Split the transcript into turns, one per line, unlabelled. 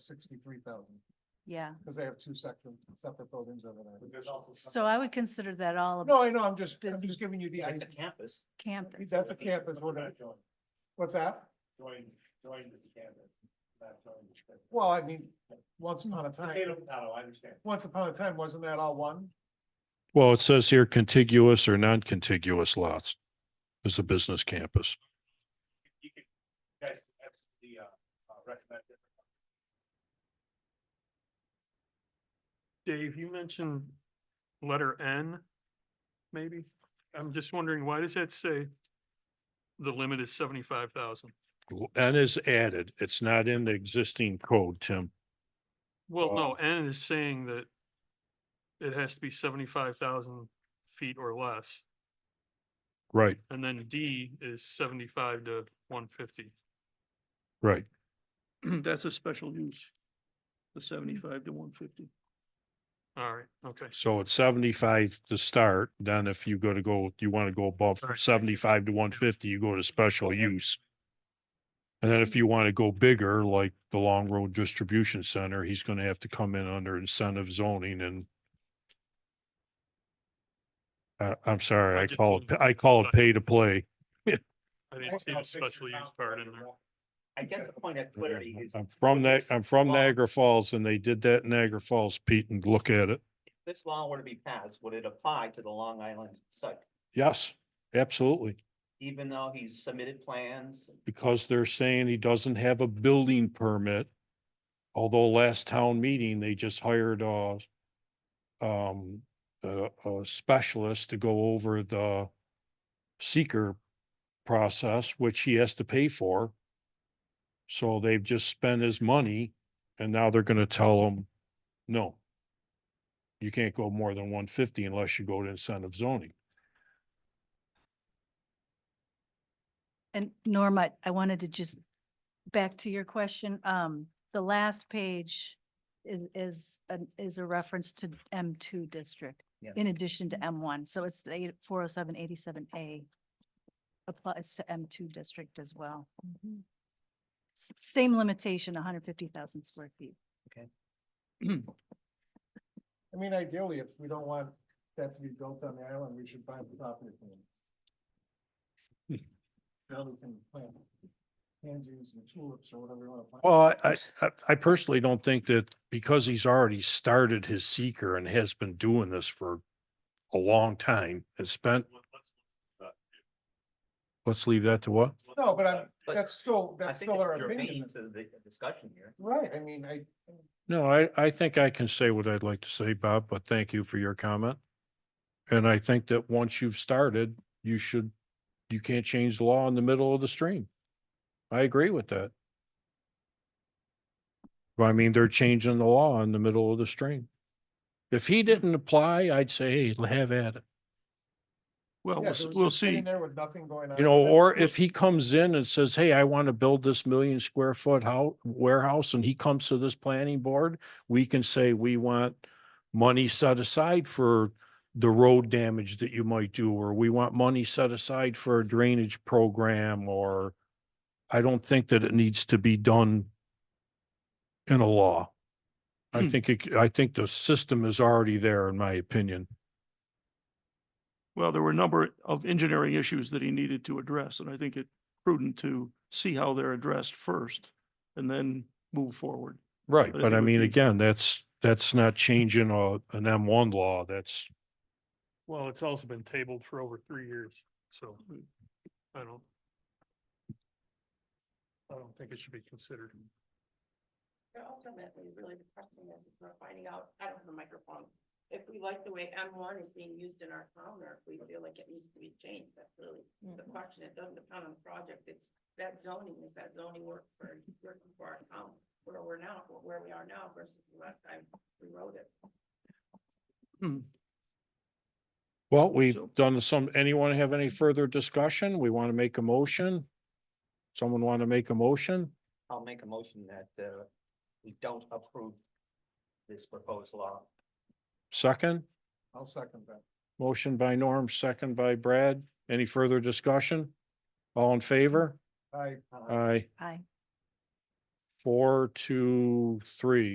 sixty-three thousand,
yeah.
because they have two separate, separate buildings over there.
So I would consider that all
No,
about
I know, I'm just, I'm
That's-
just giving you the
It's
idea.
a campus.
campus.
That's a campus, we're gonna,
join,
what's that?
join, join this campus. not join this campus.
Well, I mean, once upon a time,
Potato, potato, I understand.
once upon a time, wasn't that all one?
Well, it says here contiguous or non-contiguous lots is the business campus.
You can, that's, that's the, uh, uh, recommended.
Dave, you mentioned letter N, maybe? I'm just wondering, why does that say the limit is seventy-five thousand?
N is added. It's not in the existing code, Tim.
Well, no,
Wow.
N is saying that it has to be seventy-five thousand feet or less,
Right,
and then D is seventy-five to one fifty.
right.
That's a special use, the seventy-five to one fifty.
All right, okay.
So it's seventy-five to start. Then if you go to go, you want to go above from
Right.
seventy-five to one fifty, you go to special use. And then if you want to go bigger, like the Long Road Distribution Center, he's going to have to come in under incentive zoning and I, I'm sorry,
I
I
just
call it,
didn't-
I call it
but-
pay to play.
I didn't see the special use part in there.
I guess the point of clarity is.
I'm from Ni-
this
I'm from
law-
Niagara Falls and they did that in Niagara Falls, Pete, and look at it.
if This law were to be passed, would it apply to the Long Island site,
Yes, absolutely.
even though he's submitted plans?
Because they're saying he doesn't have a building permit. Although last town meeting, they just hired a um, a, a specialist to go over the seeker process, which he has to pay for. So they've just spent his money and now they're gonna tell him, no. You can't go more than one fifty unless you go to incentive zoning.
And Norm, I, I wanted to just, back to your question, um, the last page is, is, an- is a reference to M two district
Yes.
in addition to M one, so it's the eight, four oh seven eighty-seven A applies to M two district as well.
Mm-hmm.
S- Same limitation, hundred fifty thousand square feet.
I mean, ideally, if we don't want that to be built on the island, we should buy the property from them.
Hmm.
Now we can plant pansies and tulips or whatever you want to plant.
Well, I, I- I personally don't think that because he's already started his seeker and has been doing this for a long time and spent, let's leave that to what?
No, but I'm,
But
that's still,
I
that's
think
still
it's
our
germane
opinion.
To the discussion here.
Right, I mean, I,
No, I, I think I can say what I'd like to say, Bob, but thank you for your comment. And I think that once you've started, you should, you can't change the law in the middle of the stream. I agree with that. Well, I mean, they're changing the law in the middle of the stream. If he didn't apply, I'd say, hey, have at it.
yeah,
Well, we'll
there
s-
was
we'll
just sitting
see.
There with nothing going on.
You know, or if he comes in and says, hey, I want to build this million square foot house warehouse, and he comes to this planning board, we can say, we want money set aside for the road damage that you might do, or we want money set aside for a drainage program, or I don't think that it needs to be done in a law. I think, it- I think the system is already there, in my opinion.
Well, there were a number of engineering issues that he needed to address, and I think it prudent to see how they're addressed first and then move forward.
Right,
But I
but
think
I
it would
mean,
be-
again, that's, that's not changing a, an M one law, that's,
Well, it's also been tabled for over three years, so I don't. I don't think it should be considered.
But ultimately, really the question is, if we're finding out, I don't have a microphone, if we like the way M one is being used in our town, or if we feel like it needs to be changed, that's really the question, it doesn't depend on the project, it's that zoning, is that zoning work for, working for our town, where we're now, where we are now versus the last time we wrote it.
well, we've
So-
done some, anyone have any further discussion? We want to make a motion? Someone want to make a motion?
I'll make a motion that, uh, we don't approve this proposed law.
Second,
I'll second that.
motion by Norm, second by Brad. Any further discussion? All in favor?
I,
Uh,
Aye.
Aye.
four, two, three.